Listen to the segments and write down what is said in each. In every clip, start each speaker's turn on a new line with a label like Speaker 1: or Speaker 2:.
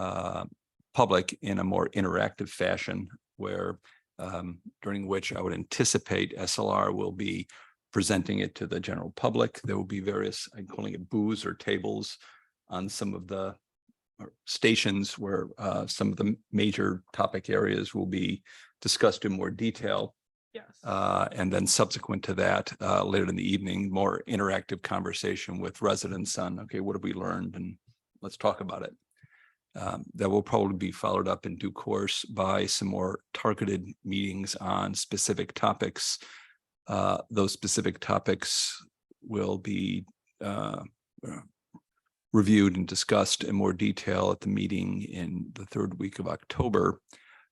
Speaker 1: uh, public in a more interactive fashion where um, during which I would anticipate SLR will be presenting it to the general public. There will be various, I'm calling it booths or tables on some of the or stations where uh, some of the m- major topic areas will be discussed in more detail.
Speaker 2: Yes.
Speaker 1: Uh, and then subsequent to that, uh, later in the evening, more interactive conversation with residents on, okay, what have we learned and let's talk about it. Um, that will probably be followed up in due course by some more targeted meetings on specific topics. Uh, those specific topics will be, uh, uh, reviewed and discussed in more detail at the meeting in the third week of October.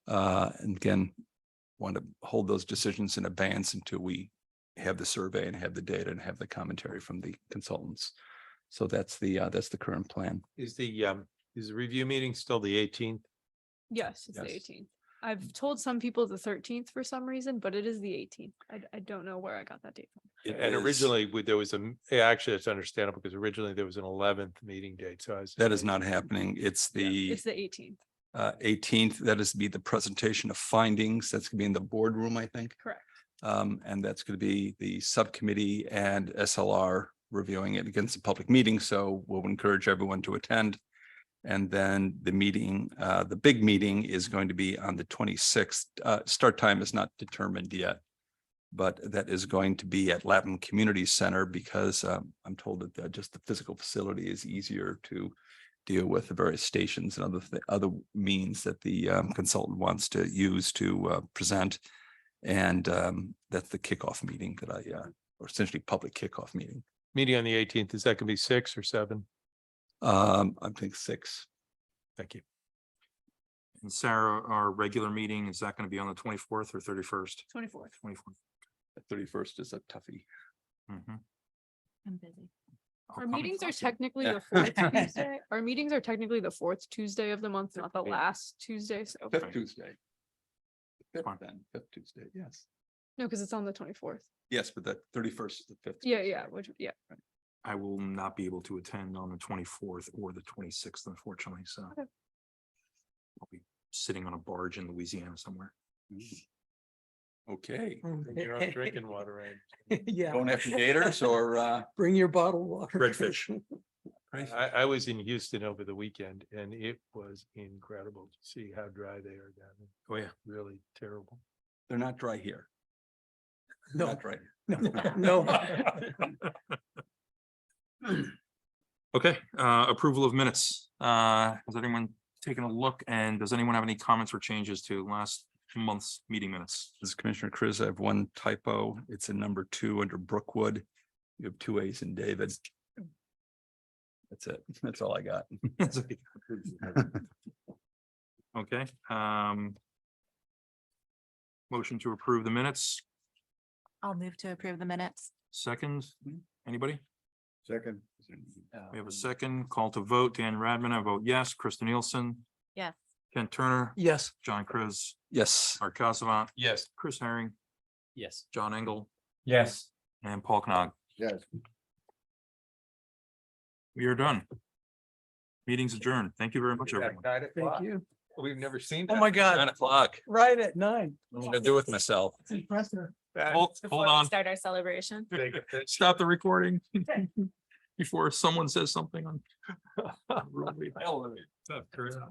Speaker 1: Uh, and again, want to hold those decisions in abeyance until we have the survey and have the data and have the commentary from the consultants. So that's the, uh, that's the current plan.
Speaker 3: Is the, um, is the review meeting still the eighteenth?
Speaker 2: Yes, it's
Speaker 1: Yes.
Speaker 2: the
Speaker 1: Mm.
Speaker 2: eighteenth. I've told some people the thirteenth for some reason, but it is the eighteenth. I, I don't know where I got that date from.
Speaker 3: And originally, we- there was a, m- yeah, actually, it's understandable because originally there was an eleventh meeting date, so I was.
Speaker 1: That is not happening. It's the uh,
Speaker 2: It's the eighteenth,
Speaker 1: eighteenth. That is to be the presentation of findings. That's gonna be in the boardroom, I think.
Speaker 2: correct?
Speaker 1: Um, and that's going to be the subcommittee and SLR reviewing it against the public meeting. So we'll encourage everyone to attend. And then the meeting, uh, the big meeting is going to be on the twenty-sixth. Uh, start time is not determined yet. But that is going to be at Lapham Community Center because, um, I'm told that uh, just the physical facility is easier to deal with the various stations and other, thi- other means that the um, consultant wants to use to, uh, present. And um, that's the kickoff meeting that I, uh, or essentially public kickoff meeting.
Speaker 3: Meeting on the eighteenth, is that gonna be six or seven?
Speaker 1: Um, I think six.
Speaker 3: Thank you.
Speaker 4: And Sarah, our regular meeting, is that going to be on the twenty-fourth or thirty-first?
Speaker 2: Twenty-fourth.
Speaker 4: Twenty-fourth.
Speaker 1: The thirty-first is a toughie.
Speaker 4: Mm-hmm.
Speaker 5: I'm busy.
Speaker 1: Oh,
Speaker 2: Our meetings are technically
Speaker 1: Yeah.
Speaker 2: the fourth Tuesday. Our meetings are technically the fourth Tuesday of the month, not the
Speaker 4: Yeah.
Speaker 2: last Tuesday. So,
Speaker 1: Fifth
Speaker 4: Fine.
Speaker 1: Tuesday. Fifth
Speaker 4: Fine.
Speaker 1: then, fifth Tuesday, yes.
Speaker 2: no, because it's on the twenty-fourth.
Speaker 1: Yes, but the thirty-first is the fifth.
Speaker 2: Yeah, yeah, which, yeah.
Speaker 4: I will not be able to attend on the twenty-fourth or the twenty-sixth, unfortunately, so.
Speaker 2: Okay.
Speaker 4: I'll be sitting on a barge in Louisiana somewhere.
Speaker 1: Mm. Okay.
Speaker 6: Oh,
Speaker 3: You're on drinking water, right?
Speaker 1: Going after gators or uh?
Speaker 6: Bring your bottled water.
Speaker 4: Redfish.
Speaker 3: I, I was in Houston over the weekend and it was incredible to see how dry they are down there.
Speaker 4: Oh, yeah.
Speaker 3: Really terrible.
Speaker 1: They're not dry here. They're
Speaker 6: No,
Speaker 1: Not dry. here.
Speaker 6: no, no.
Speaker 4: Okay, uh, approval of minutes. Uh, has anyone taken a look and does anyone have any comments or changes to last month's meeting minutes?
Speaker 1: This is Commissioner Chris. I have one typo. It's in number two under Brookwood. You have two A's in David. That's it. That's all I got.
Speaker 4: Okay, um. Motion to approve the minutes,
Speaker 5: I'll move to approve the minutes.
Speaker 4: second, anybody?
Speaker 1: Second.
Speaker 4: We have a second call to vote. Dan Radman, I vote yes. Krista Nielsen.
Speaker 5: Yes.
Speaker 4: Ken Turner,
Speaker 6: Yes,
Speaker 4: John Chris,
Speaker 1: Yes.
Speaker 4: Art Casavant,
Speaker 3: Yes.
Speaker 4: Chris Herring,
Speaker 3: Yes.
Speaker 4: John Engel,
Speaker 3: Yes.
Speaker 4: and Paul Knog.
Speaker 3: Yes.
Speaker 4: We are done. Meeting's adjourned. Thank you very much, everyone.
Speaker 6: thank you.
Speaker 3: We've never seen.
Speaker 6: Oh my God,
Speaker 1: o'clock.
Speaker 6: right at nine.
Speaker 1: I'm gonna do with myself.
Speaker 6: It's impressive.
Speaker 4: Hold, hold on,
Speaker 5: Start our celebration.
Speaker 4: stop the recording. Before someone says something on.
Speaker 3: Tough crowd.